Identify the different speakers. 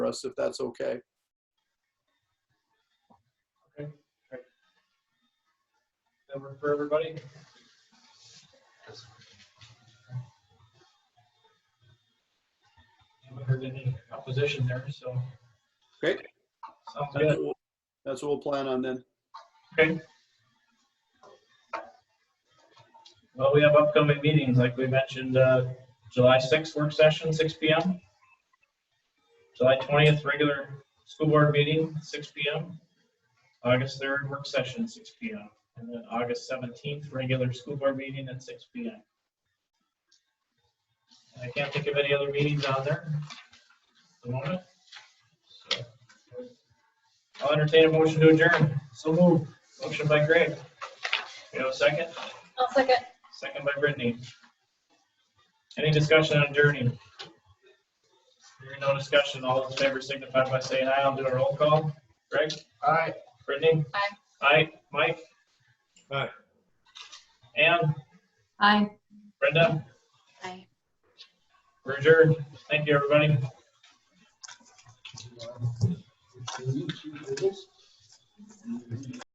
Speaker 1: us, if that's okay.
Speaker 2: That work for everybody? Haven't heard any opposition there, so.
Speaker 1: Great.
Speaker 2: Sounds
Speaker 1: That's
Speaker 2: good.
Speaker 1: what we'll- that's what we'll plan on then.
Speaker 2: Well, we have upcoming meetings, like we mentioned, uh, July 6th work session, 6 PM. July 20th, regular school board meeting, 6 PM. August 3rd, work session, 6 PM. And then August 17th, regular school board meeting at 6 PM. And I can't think of any other meetings on there at the moment. So, I'll entertain a motion to adjourn. So moved. Motion by Greg. You have a second?
Speaker 3: I'll second.
Speaker 2: Second by Brittany. Any discussion on adjourning? Hearing no discussion, all in favor signify by saying aye. I'll do a roll call. Greg? Aye. Brittany?
Speaker 3: Aye.
Speaker 2: Aye. Mike?
Speaker 4: Aye.
Speaker 2: Ann?
Speaker 3: Aye.
Speaker 2: Brenda?
Speaker 3: Aye.
Speaker 2: We're adjourned. Thank you, everybody.